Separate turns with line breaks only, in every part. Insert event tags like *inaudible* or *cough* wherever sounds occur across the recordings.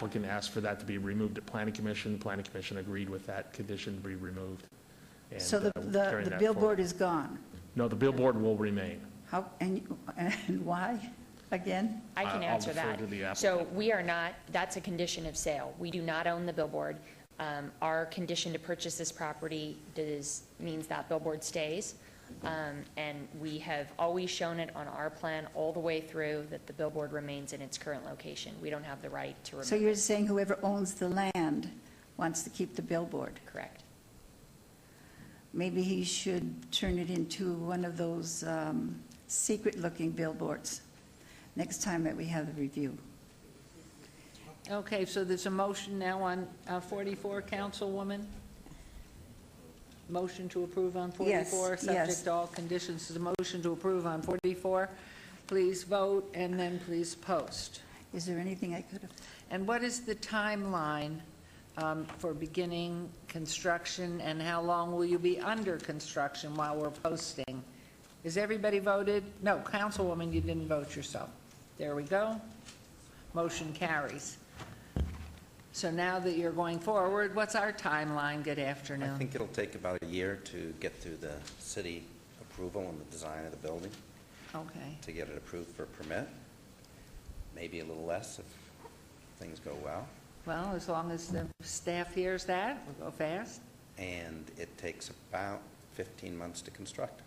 applicant asked for that to be removed at planning commission. The planning commission agreed with that condition to be removed. and,
So the,
uh, we're
the
carrying
the
that forward.
billboard is gone.
No, the billboard will remain.
How, and, and *laughs* why, again?
I
I-
can
I'll
answer
defer
that.
to the
So we are not, that's a condition of sale. We do not own the billboard. Um, Our condition to purchase this property does, means that billboard stays. Um, And we have always shown it on our plan all the way through that the billboard remains in its current location. We don't have the right to remove
So
it.
you're saying whoever owns the land wants to keep the billboard?
Correct.
Maybe he should turn it into one of those um, secret-looking billboards next time that we have the review.
Okay, so there's a motion now on uh, 44, Councilwoman? Motion to approve on
Yes,
44?
yes.
Subject to all conditions, is a motion to approve on 44. Please vote, and then please post.
Is there anything I could have,
And what is the timeline um, for beginning construction, and how long will you be under construction while we're posting? Is everybody voted? No, Councilwoman, you didn't vote yourself. There we go. Motion carries. So now that you're going forward, what's our timeline? Good
I
afternoon.
think it'll take about a year to get through the city approval and the design of the building,
Okay.
to get it approved for permit. Maybe a little less if things go well.
Well, as long as the staff hears that, we'll go fast.
And it takes about 15 months to construct.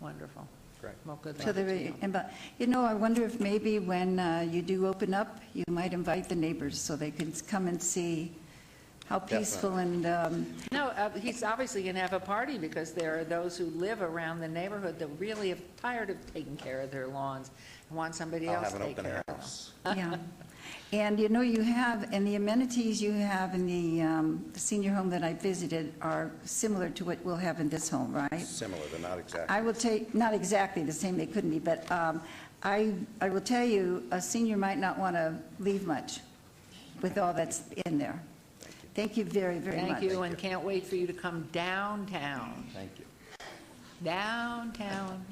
Wonderful.
Correct.
Well, good
to
luck
the,
to you.
and but- you know, I wonder if maybe when uh, you do open up, you might invite the neighbors so they can come and see how peaceful and, um,
No, uh, he's obviously going to have a party because there are those who live around the neighborhood that really are tired of taking care of their lawns and want somebody
I'll
else
have
to
an
take
open
care of them.
house.
yeah. And you know, you have, and the amenities you have in the um, senior home that I visited are similar to what we'll have in this home, right?
Similar, but not
I
exactly.
will take, not exactly the same, they couldn't be, but um, I, I will tell you, a senior might not want to leave much with all that's in there. Thank you very, very much.
Thank you, and can't wait for you to come downtown,
Thank you.
downtown.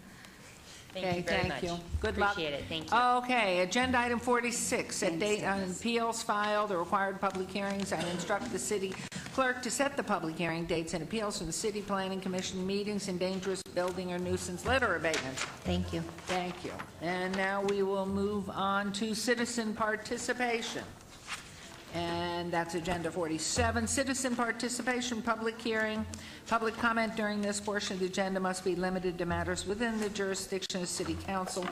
Thank you
Okay,
very much.
Thank you. Good luck.
Appreciate it, thank you.
Okay, agenda item 46, set
Thanks,
date on appeals filed or required public hearings and instruct the city clerk to set the public hearing dates and appeals from the city planning commission meetings and dangerous building or nuisance litter abatements.
Thank you.
Thank you. And now we will move on to citizen participation. And that's Agenda 47, citizen participation, public hearing. Public comment during this portion of the agenda must be limited to matters within the jurisdiction of city council.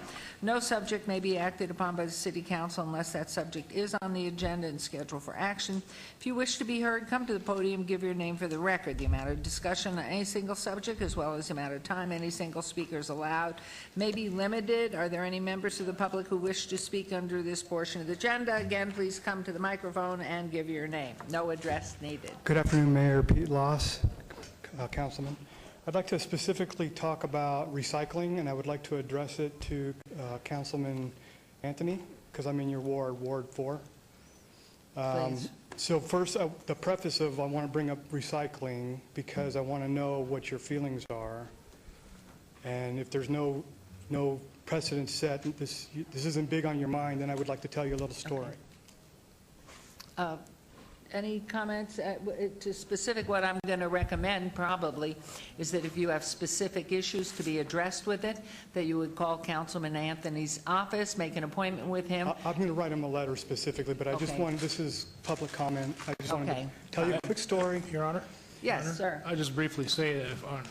No subject may be acted upon by the city council unless that subject is on the agenda and scheduled for action. If you wish to be heard, come to the podium, give your name for the record. The amount of discussion on any single subject, as well as the amount of time any single speaker is allowed, may be limited. Are there any members of the public who wish to speak under this portion of the agenda? Again, please come to the microphone and give your name. No address needed.
Good afternoon, Mayor Pete Loss, uh, Councilman. I'd like to specifically talk about recycling, and I would like to address it to uh, Councilman Anthony, because I'm in your ward, Ward 4. Um,
Please.
So first, uh, the preface of, I want to bring up recycling, because I want to know what your feelings are. And if there's no, no precedent set, and this, this isn't big on your mind, then I would like to tell you a little story.
Any comments uh, w- to specific, what I'm going to recommend probably is that if you have specific issues to be addressed with it, that you would call Councilman Anthony's office, make an appointment with him.
I- I'm going to write him a letter specifically, but I just
Okay.
wanted, this is public comment. I just wanted
Okay.
to tell you a quick story.
Your Honor?
Yes,
Your Honor,
sir.
I just briefly say that if on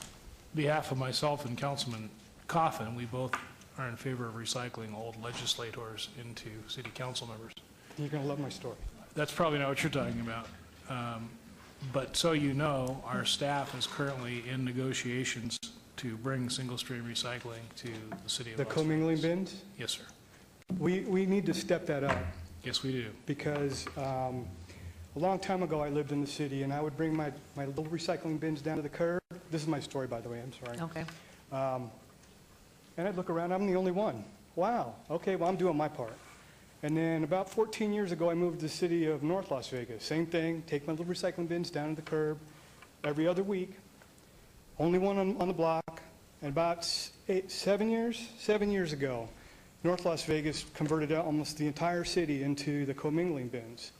behalf of myself and Councilman Coffin, we both are in favor of recycling old legislators into city council members.
You're going to love my story.
That's probably not what you're talking about. Um, But so you know, our staff is currently in negotiations to bring single-stream recycling to the city of
The
Las
commingling
Vegas.
bins,
Yes, sir.
we, we need to step that up
Yes, we do.
because um, a long time ago, I lived in the city and I would bring my, my little recycling bins down to the curb. This is my story, by the way, I'm sorry.
Okay.
And I'd look around, I'm the only one. Wow, okay, well, I'm doing my part. And then about 14 years ago, I moved to the city of North Las Vegas. Same thing, take my little recycling bins down to the curb every other week, only one on, on the block. And about s- eight, seven years, seven years ago, North Las Vegas converted out almost the entire city into the commingling bins.